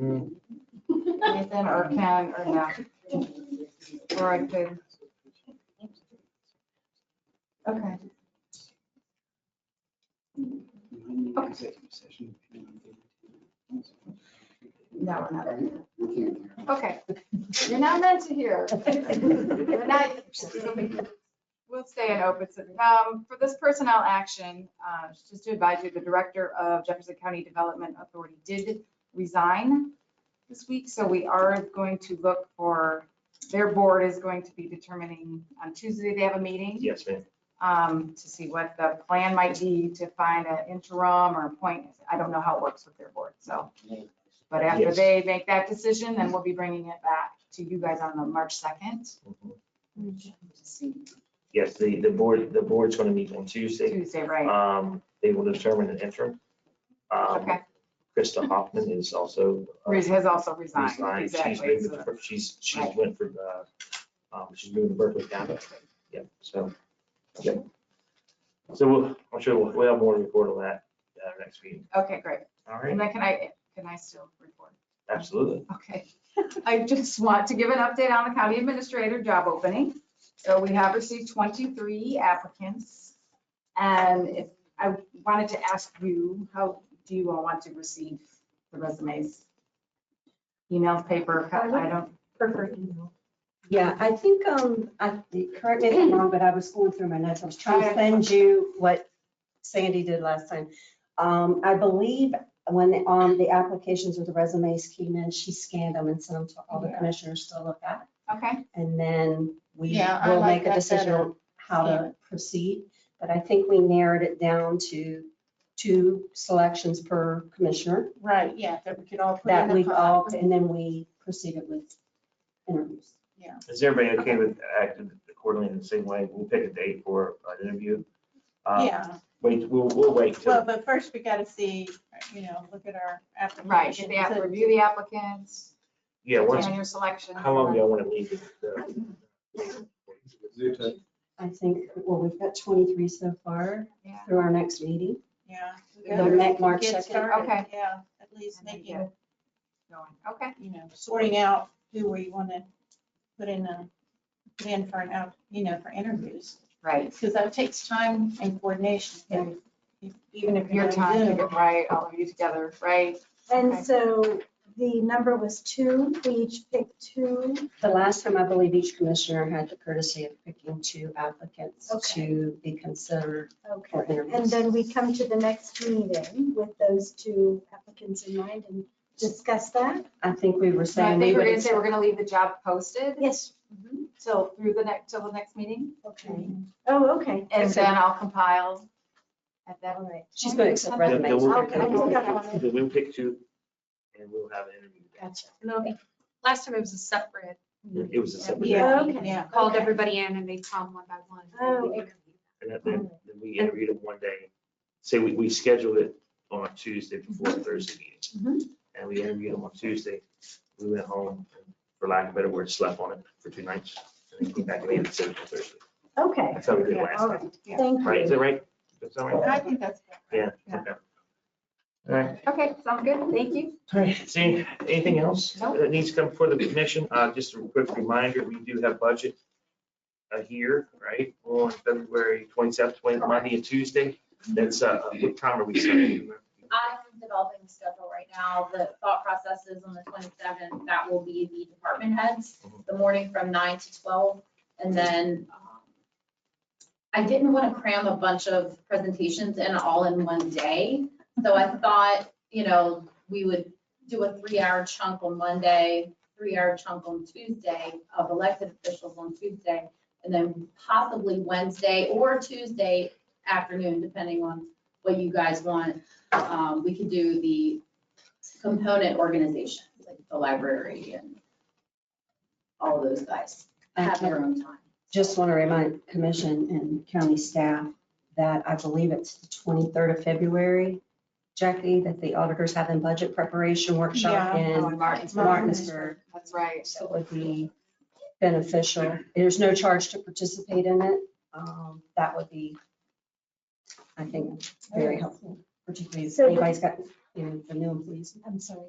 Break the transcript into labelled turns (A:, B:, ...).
A: Mm-hmm. Ethan or Ken or no. Or I could. Okay, no, we're not. Okay, you're not meant to hear. We're not- We'll stay in open. session. Um, for this personnel action, uh, just to advise you, the director of Jefferson County Development Authority did resign this week, so we are going to look for, their board is going to be determining, on Tuesday, they have a meeting
B: Yes, ma'am.
A: um, to see what the plan might be to find an interim or appoint. I don't know how it works with their board, so. But after
B: Yes.
A: they make that decision, then we'll be bringing it back to you guys on the March second,
B: Yes, the, the board, the board's gonna meet on Tuesday.
A: Tuesday, right?
B: Um, they will determine an interim. Um,
A: Okay,
B: Krista Hoffman is also. uh,
A: Reese has also resigned,
B: resigned. She's
A: exactly.
B: moving
A: so-
B: to- She's, she's
A: Right.
B: went for, uh, um, she's moving to Berkeley County. Yep, so, yep. So we'll, I'm sure we'll, we'll have more to report on that, uh, next meeting.
A: Okay, great.
B: All right,
A: And then can I, can I still report?
B: absolutely.
A: Okay. I just want to give an update on the county administrator job opening. So we have received 23 applicants. And if, I wanted to ask you, how do you all want to receive the resumes? Email, paper, I don't,
C: Prefer email.
D: Yeah, I think, um, I, correct me if I'm wrong, but I was going through my notes. I was trying to send you what Sandy did last time. Um, I believe when, the- um, the applications or the resumes came in, she scanned them and sent them to all the commissioners to look at.
A: okay,
D: And then we
C: Yeah, I
D: will
C: like
D: make a
C: that
D: decision
C: better.
D: on how to proceed. But I think we narrowed it down to two selections per commissioner
C: Right, yeah, that we could all put
D: that
C: in
D: we
C: the pot.
D: all, and then we proceeded with interviews.
B: Is everybody okay with acting accordingly in the same way? We'll pick a date for an interview. Uh,
C: Yeah,
B: Wait, we'll, we'll wait
C: well,
B: till,
C: but first we gotta see, you know, look at our application.
A: right, get the app, review the applicants,
B: yeah, once,
A: and your selection.
B: how long do y'all want to leave? it? Uh,
D: I think, well, we've got 23 so far
A: Yeah.
D: through our next meeting.
C: Yeah.
D: The Mac- March
C: Get
D: 2nd.
C: started,
A: Okay.
C: Yeah, at least making,
A: Going, Okay,
C: you know, sorting out who we wanna put in, a- put in for an, out, you know, for interviews.
A: right.
C: Because that takes time and coordination, and if- even if you're
A: Your time to
C: on Zoom.
A: get right, all of you together, right? Okay.
E: And so the number was two, we each picked two.
D: The last time, I believe each commissioner had the courtesy of picking two applicants
E: Okay.
D: to be considered for
E: Okay. And
D: interviews.
E: then we come to the next meeting with those two applicants in mind and discuss that.
D: I think we were
A: So I
D: saying. we
A: think we're
D: would
A: gonna say we're
D: accept-
A: gonna leave the job posted
E: Yes,
A: till Mm-hmm. through the next, till the next meeting,
E: okay. Oh, okay.
A: and then I'll compile at that.
E: All right.
D: She's going to accept
A: Yeah,
B: then- then
D: resumes.
B: we'll-
E: Okay, I think I got it.
B: then We'll pick two and we'll have an interview.
E: Gotcha.
F: No, last time it was a separate,
B: It was a separate.
C: Yeah.
E: Okay.
C: Yeah.
F: called
E: Okay.
F: everybody in and they come one by one.
E: Oh,
F: We
E: okay.
B: And that- then, then we interviewed them one day. Say, we, we scheduled it on a Tuesday before a Thursday meeting. And we interviewed them on Tuesday. We went home, and, for lack of a better word, slept on it for two nights. And then came back and made a decision on Thursday.
E: Okay,
B: That's how we did
C: Yeah,
B: last
E: all
B: time.
E: right, thank
B: Right, is
E: you.
B: that right? That's all right?
C: I think that's.
B: Yeah.
A: Yeah.
B: okay. All right.
A: Okay, sounds good, thank you.
B: All right, see, anything else
A: Nope.
B: that needs to come before the commission? Uh, just a quick reminder, we do have budget uh, here, right, on February twenty-seventh, Monday and Tuesday. That's, uh, what time are we starting?
G: I am developing the schedule right now. The thought process is on the twenty-seventh, that will be the department heads, the morning from nine to twelve. And then um, I didn't want to cram a bunch of presentations in all in one day. So I thought, you know, we would do a three-hour chunk on Monday, three-hour chunk on Tuesday of elected officials on Tuesday, and then possibly Wednesday or Tuesday afternoon, depending on what you guys want um, we could do the component organization, like the library and all those guys have
D: Okay.
G: their own time.
D: Just want to remind commission and county staff that I believe it's the 23rd of February, Jackie, that the auditors have in budget preparation workshop
C: Yeah.
D: in
A: Martin's,
D: Martinsburg.
A: That's right.
D: So it would be beneficial. There's no charge to participate in it. Um, That would be, I think, very helpful, particularly if
E: So-
D: anybody's got, you know, the new employees.
E: I'm sorry.